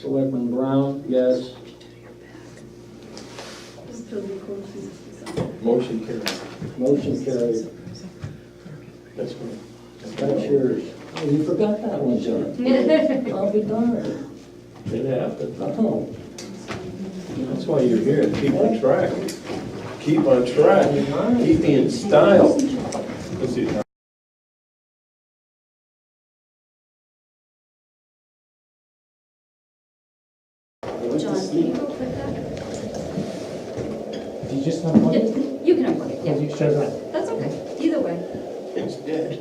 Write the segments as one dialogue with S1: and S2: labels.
S1: Selectman Brown, yes.
S2: Motion carried.
S1: Motion carried.
S2: That's me.
S1: That's yours. Oh, you forgot that one, John. I'll be darned.
S2: It happened.
S1: Oh,
S2: That's why you're here, to keep on track. Keep on track. Keep me in style. Let's see.
S3: John, can you go click that?
S4: Do you just unplug
S3: Yeah,
S4: it?
S3: You can unplug it,
S4: Or
S3: yeah,
S4: you shut it off?
S3: that's okay, either way.
S2: It's dead.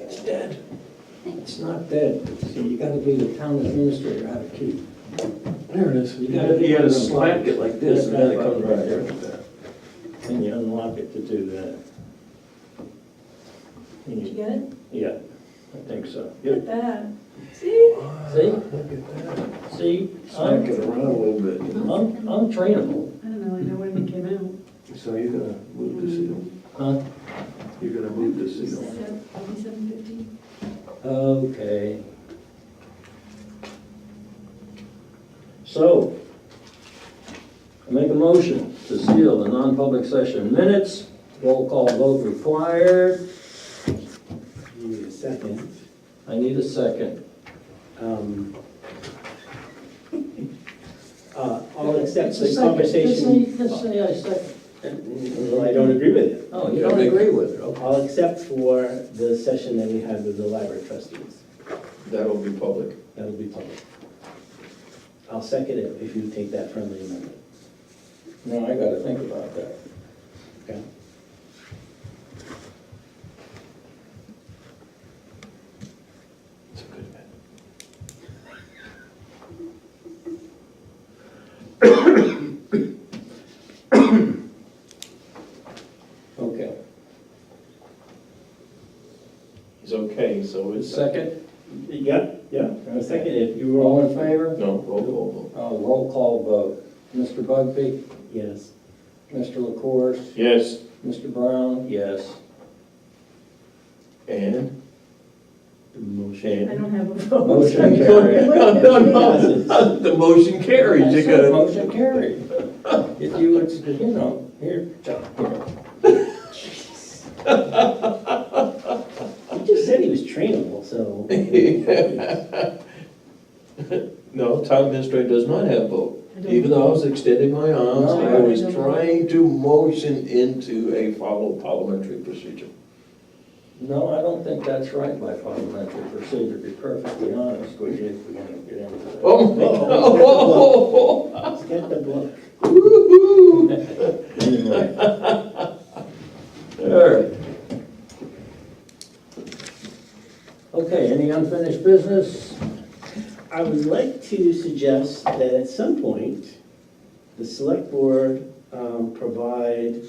S2: It's dead.
S1: It's not dead. See, you gotta be the town administrator how to keep.
S2: There it is.
S1: You gotta- you gotta slap it
S2: like
S1: this, and then it comes right here.
S2: here.
S1: And you unlock it to do that. And
S5: Did you
S1: you-
S5: get it?
S1: Yeah, I think so.
S5: Look at that. See?
S1: See?
S2: Look at that.
S1: See,
S2: Smack
S1: I'm,
S2: it around a little bit.
S1: I'm, I'm trainable.
S5: I don't know, I know when it came out.
S2: So you're gonna move the seal.
S1: Huh?
S2: You're gonna move the seal.
S5: Seventy-seven fifty.
S1: Okay. So, I make a motion to seal the non-public session minutes, roll call vote required.
S6: Need a second.
S1: I need a second.
S6: Um, uh, All except
S1: It's a
S6: the
S1: second.
S6: conversation,
S1: Just say, just say I second.
S6: well, I don't agree with it.
S1: Oh, you don't agree with it, okay.
S6: All except for the session that we had with the library trustees.
S2: That'll be public.
S6: That'll be public. I'll second it if you take that friendly amendment.
S1: No, I gotta think about that.
S6: Okay.
S2: It's a good bet.
S1: Okay.
S2: It's okay, so it's.
S1: Second,
S6: Yeah, yeah, I'll second it if you were
S1: all in
S6: all,
S1: favor?
S2: No, roll call
S1: Uh, roll call vote. Mr. Bugby,
S6: yes.
S1: Mr. LaCourse,
S2: vote. Yes.
S1: Mr. Brown? Yes.
S2: And?
S6: Motion.
S5: I don't have a vote.
S1: Motion carried.
S2: No, no, no, the motion carries, you
S1: That's it,
S2: gotta,
S1: Motion carried. If you would, you know, here, John, here.
S6: He just said he was trainable, so.
S2: no, town administrator does not have vote.
S5: I don't-
S2: Even though I was extending my arms,
S1: No,
S2: I
S1: I
S2: was
S5: don't.
S2: trying to motion into a follow parliamentary procedure.
S1: No, I don't think that's right by parliamentary procedure, to be perfectly honest with you, if we're gonna get into that.
S2: Oh, my God.
S6: He's got the book.
S2: oh. Woo-hoo.
S1: Anyway,
S2: All right.
S1: Okay, any unfinished business?
S6: I would like to suggest that at some point, the select board um, provide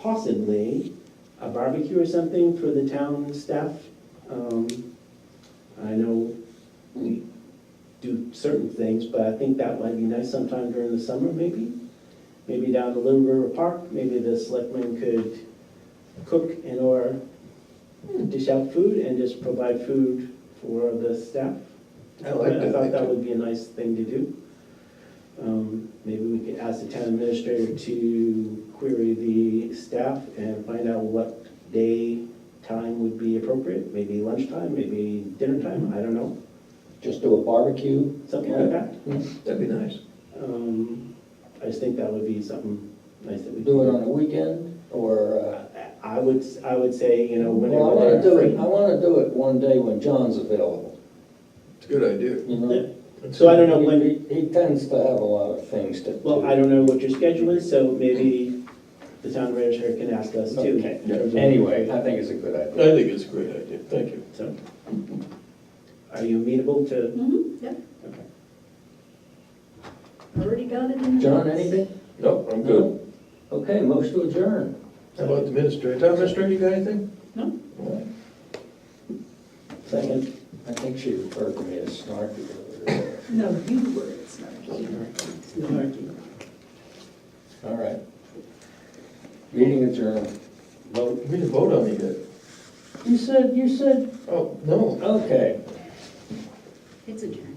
S6: possibly a barbecue or something for the town staff. Um, I know we do certain things, but I think that might be nice sometime during the summer, maybe. Maybe down to Little River Park, maybe the selectmen could cook and/or dish out food and just provide food for the staff.
S2: I like
S6: I thought that
S2: that.
S6: would be a nice thing to do. Um, Maybe we could ask the town administrator to query the staff and find out what day, time would be appropriate, maybe lunchtime, maybe dinner time, I don't know,
S1: Just do a barbecue?
S6: something like that.
S2: That'd be nice.
S6: Um, I just think that would be something nice that we.
S1: Do it on a weekend, or, uh,
S6: I- I would, s- I would say, you know,
S1: well, I
S6: whenever
S1: wanna
S6: they're
S1: do it, I
S6: free.
S1: wanna do it one day when John's available,
S2: It's a good idea.
S1: you know?
S6: So I don't know when,
S1: He he tends to have a lot of things to do.
S6: well, I don't know what your schedule is, so maybe the town administrator can ask us too.
S1: Okay.
S6: in terms of-
S1: Anyway, I think it's a good
S2: I
S1: idea.
S2: think it's a great idea, thank you.
S6: So, are you amenable to?
S3: Mhm, yeah.
S6: Okay.
S3: Already got it in. the
S1: John,
S3: notes.
S1: anything?
S2: No, I'm good.
S1: Okay, motion to adjourn.
S2: How about the administrator? Town administrator, you got anything?
S5: No.
S2: All right.
S6: Second.
S1: I think she referred to me as snarky.
S5: No, you were, it's not.
S1: All right. Meeting adjourned.
S2: Well, we didn't vote on it yet.
S1: You said, you said,
S2: Oh, no,
S1: okay.
S3: It's adjourned.